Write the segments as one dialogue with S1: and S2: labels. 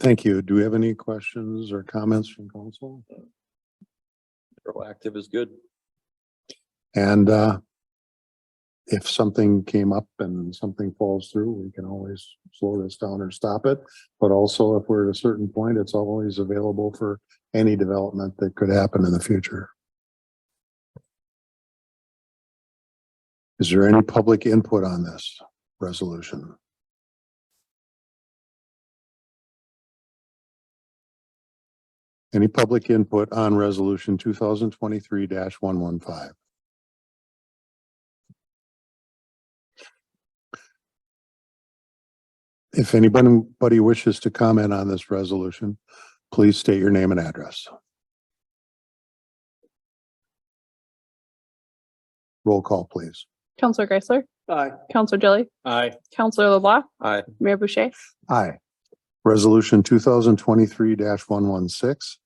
S1: Thank you. Do we have any questions or comments from council?
S2: Proactive is good.
S1: And uh, if something came up and something falls through, we can always slow this down or stop it. But also if we're at a certain point, it's always available for any development that could happen in the future. Is there any public input on this resolution? Any public input on resolution two thousand twenty-three one one five? If anybody wishes to comment on this resolution, please state your name and address. Roll call, please.
S3: Counselor Geisler,
S4: Aye.
S3: Counselor Jelly,
S4: Aye.
S3: Counselor LeBlanc,
S2: Aye.
S3: Mayor Boucher.
S1: Aye. Resolution two thousand twenty-three one one six.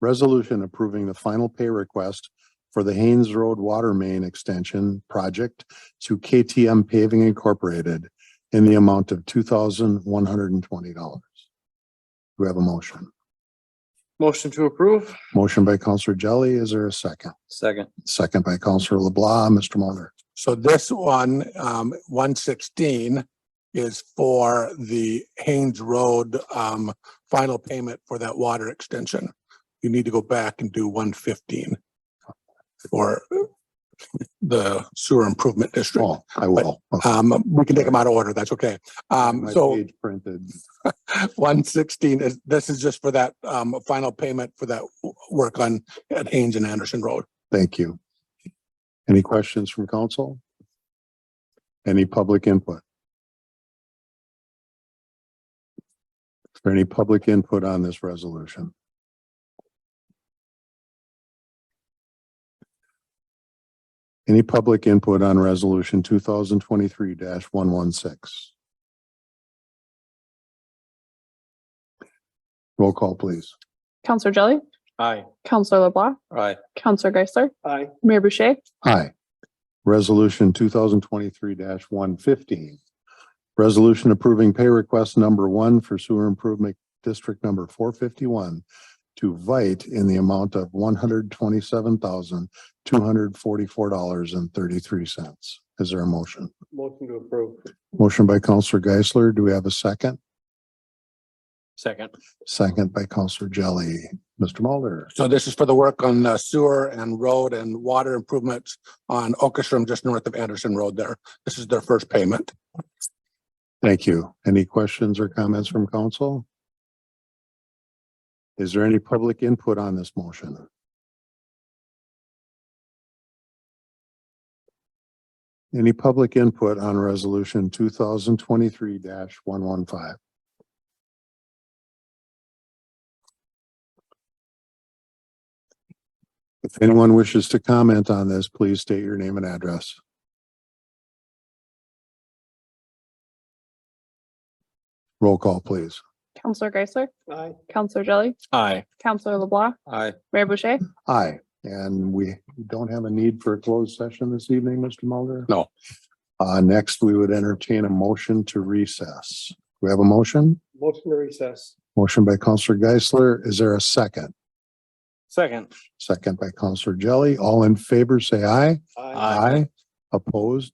S1: Resolution approving the final pay request for the Haynes Road Water Main Extension Project to KTM Paving Incorporated in the amount of two thousand one hundred and twenty dollars. Do we have a motion?
S4: Motion to approve?
S1: Motion by Counselor Jelly. Is there a second?
S2: Second.
S1: Second by Counselor LeBlanc. Mr. Mulder.
S5: So this one, um, one sixteen is for the Haynes Road, um, final payment for that water extension. You need to go back and do one fifteen for the sewer improvement district.
S1: Oh, I will. Okay.
S5: Um, we can take them out of order. That's okay. Um,
S1: My
S5: so
S1: page Printed.
S5: one sixteen is, this is just for that, um, final payment for that w- work on, at Haynes and Anderson Road.
S1: Thank you. Any questions from council? Any public input? Is there any public input on this resolution? Any public input on resolution two thousand twenty-three one one six? Roll call, please.
S3: Counselor Jelly,
S4: Aye.
S3: Counselor LeBlanc,
S2: Aye.
S3: Counselor Geisler,
S4: Aye.
S3: Mayor Boucher.
S1: Hi. Resolution two thousand twenty-three one fifteen. Resolution approving pay request number one for sewer improvement district number four fifty-one to Vite in the amount of one hundred twenty-seven thousand, two hundred forty-four dollars and thirty-three cents. Is there a motion?
S4: Motion to approve?
S1: Motion by Counselor Geisler. Do we have a second?
S4: Second.
S1: Second by Counselor Jelly. Mr. Mulder?
S5: So this is for the work on uh, sewer and road and water improvements on Oakesham, just north of Anderson Road there. This is their first payment.
S1: Thank you. Any questions or comments from council? Is there any public input on this motion? Any public input on resolution two thousand twenty-three one one five? If anyone wishes to comment on this, please state your name and address. Roll call, please.
S3: Counselor Geisler,
S4: Aye.
S3: Counselor Jelly,
S4: Aye.
S3: Counselor LeBlanc,
S2: Aye.
S3: Mayor Boucher.
S1: Aye, and we don't have a need for a closed session this evening, Mr. Mulder?
S5: No.
S1: Uh, next, we would entertain a motion to recess. We have a motion,
S4: Motion to recess?
S1: motion by Counselor Geisler. Is there a second?
S4: Second.
S1: Second by Counselor Jelly. All in favor, say aye.
S4: Aye.
S1: Aye. Opposed,